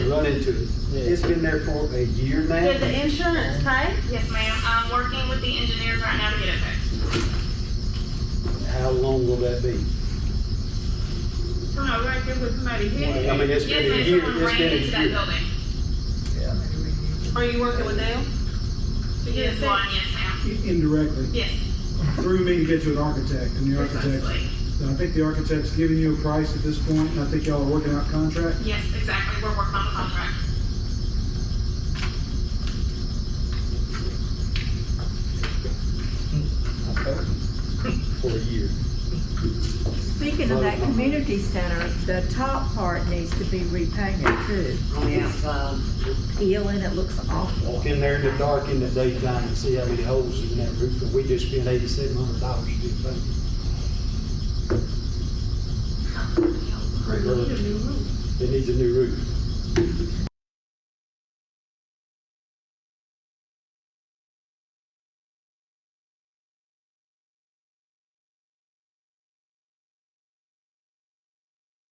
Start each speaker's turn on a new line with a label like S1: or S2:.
S1: run into it. It's been there for a year
S2: Did
S1: now.
S2: the insurance pay?
S3: Yes, ma'am. I'm working with the engineers right now to get it fixed.
S1: How long will that be?
S2: Come on, right there with somebody
S1: I
S2: hit.
S1: mean, it's
S3: Yes,
S1: been a
S3: ma'am.
S1: year,
S3: Someone
S1: it's
S3: ran into
S1: been a
S3: that
S1: year.
S3: building.
S2: Are you working with them? To get it
S3: Yes, one,
S2: fixed?
S3: yes, ma'am.
S4: indirectly,
S3: Yes,
S4: through me to get to an architect, and the architect,
S3: precisely.
S4: I think the architect's giving you a price at this point, and I think y'all are working out contract.
S3: Yes, exactly. We're working on the contract.
S1: For a year.
S5: Speaking of that community center, the top part needs to be repainted too. Peeling, it looks awful.
S1: Walk in there in the dark in the daytime and see how many holes is in that roof, and we just spent eighty-seven hundred dollars to do that. It needs a new roof.